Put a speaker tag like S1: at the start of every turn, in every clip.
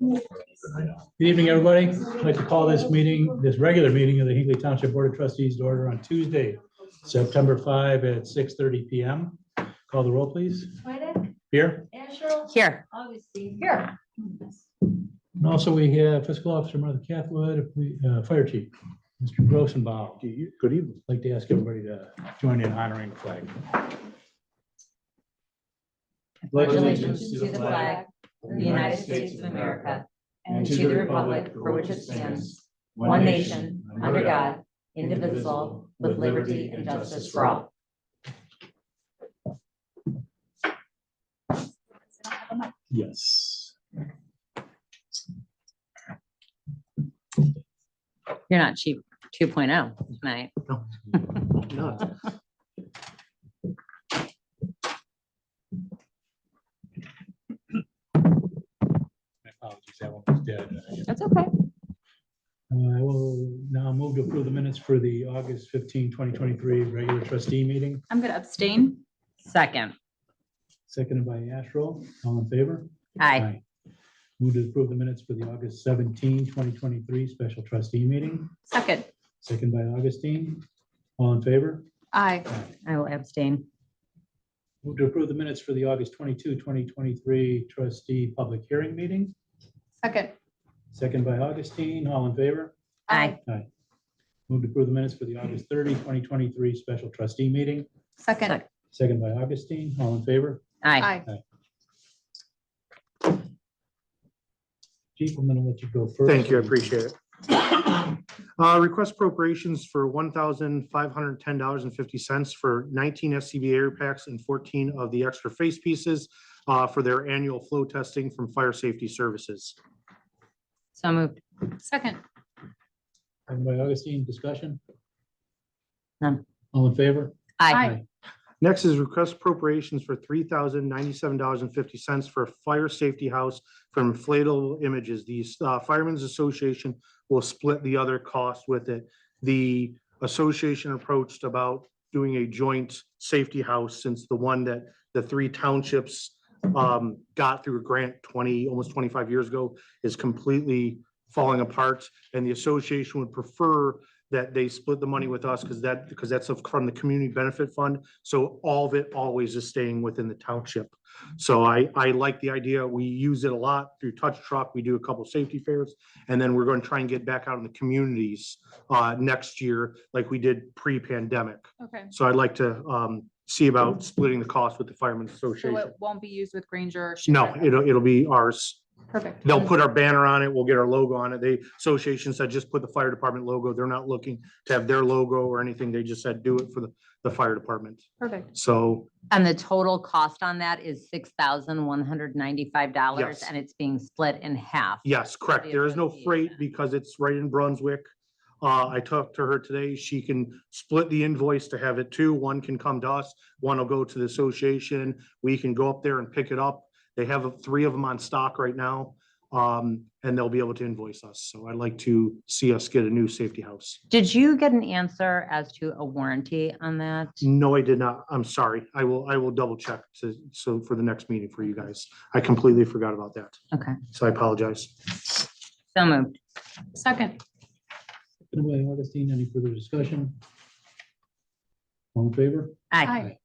S1: Good evening, everybody. I'd like to call this meeting, this regular meeting of the Hinkley Township Board of Trustees to order on Tuesday, September 5 at 6:30 PM. Call the roll, please.
S2: Swedek,
S1: Here.
S2: Asherle,
S3: Here,
S2: Augustine. Here.
S1: And also we have fiscal officer Martha Cathwood, if we- uh, fire chief, Mr. Grossenbaum. Good evening. Like to ask everybody to join in honoring the flag.
S3: congratulations to the flag of the United States of America and to the republic for which it stands, one nation, under God, indivisible, with liberty and justice for all.
S1: Yes.
S3: You're not cheap 2.0 tonight.
S1: My apologies, that one was dead.
S3: That's okay.
S1: Uh, I will now move to approve the minutes for the August 15, 2023 regular trustee meeting,
S4: I'm gonna abstain.
S3: Second,
S1: seconded by Asherall. All in favor?
S3: aye.
S1: Move to approve the minutes for the August 17, 2023 special trustee meeting,
S4: Second,
S1: second by Augustine. All in favor?
S4: aye.
S3: I will abstain.
S1: Move to approve the minutes for the August 22, 2023 trustee public hearing meeting,
S4: Second,
S1: second by Augustine. All in favor?
S3: Aye.
S1: Move to approve the minutes for the August 30, 2023 special trustee meeting,
S4: Second,
S1: second by Augustine. All in favor?
S3: Aye.
S4: aye.
S1: Chief, I'm going to let you go first.
S5: Thank you, I appreciate it. Uh, Request appropriations for one thousand five hundred ten dollars and fifty cents for nineteen SCBA air packs and fourteen of the extra face pieces uh, for their annual flow testing from Fire Safety Services.
S3: So moved.
S4: Second,
S1: Second by Augustine, discussion?
S3: None.
S1: All in favor?
S3: Aye.
S4: Aye.
S5: Next is request appropriations for three thousand ninety-seven dollars and fifty cents for a fire safety house from inflatable images. The uh, Firemen's Association will split the other cost with it. The association approached about doing a joint safety house since the one that the three townships um, got through a grant twenty, almost twenty-five years ago is completely falling apart. And the association would prefer that they split the money with us because that, because that's from the Community Benefit Fund. So all of it always is staying within the township. So I, I like the idea. We use it a lot through touch truck. We do a couple safety fairs. And then we're going to try and get back out in the communities uh, next year like we did pre-pandemic.
S4: okay.
S5: So I'd like to um, see about splitting the cost with the Firemen's
S4: So
S5: Association.
S4: it won't be used with Granger or.
S5: No,
S4: Schumann.
S5: it'll, it'll be ours.
S4: Perfect.
S5: They'll put our banner on it. We'll get our logo on it. The association said just put the fire department logo. They're not looking to have their logo or anything. They just said do it for the, the fire department.
S4: Perfect,
S5: So
S3: And the total cost on that is $6,195
S5: Yes.
S3: and it's being split in half.
S5: yes, correct. There is no freight because it's right in Brunswick. Uh, I talked to her today. She can split the invoice to have it too. One can come to us, one will go to the association. We can go up there and pick it up. They have uh, three of them on stock right now. Um, and they'll be able to invoice us. So I'd like to see us get a new safety house.
S3: Did you get an answer as to a warranty on that?
S5: No, I did not. I'm sorry. I will, I will double check to, so for the next meeting for you guys. I completely forgot about that.
S3: Okay.
S5: So I apologize.
S3: So moved.
S4: second,
S1: Seconded by Augustine, any further discussion? All in favor?
S3: Aye.
S4: aye.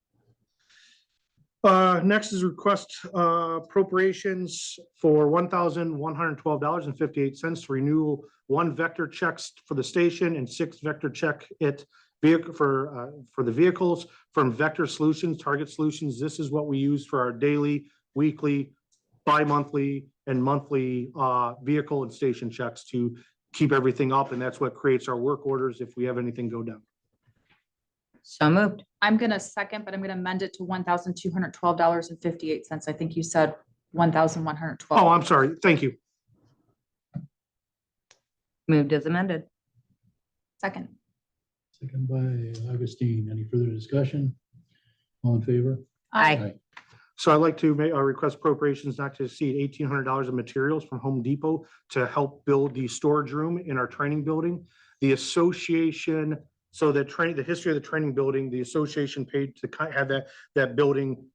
S5: Uh, next is request uh, appropriations for one thousand one hundred twelve dollars and fifty-eight cents to renew one vector checks for the station and six vector check it vehicle for, uh, for the vehicles from Vector Solutions, Target Solutions. This is what we use for our daily, weekly, bi-monthly and monthly uh, vehicle and station checks to keep everything up. And that's what creates our work orders if we have anything go down.
S3: So moved.
S4: I'm gonna second, but I'm gonna amend it to one thousand two hundred twelve dollars and fifty-eight cents. I think you said one thousand one hundred twelve.
S5: Oh, I'm sorry. Thank you.
S3: Moved as amended.
S4: Second,
S1: Second by Augustine, any further discussion? All in favor?
S3: Aye.
S5: So I'd like to make, a request appropriations not to exceed eighteen hundred dollars of materials from Home Depot to help build the storage room in our training building. The association, so the train, the history of the training building, the association paid to kind have that, that building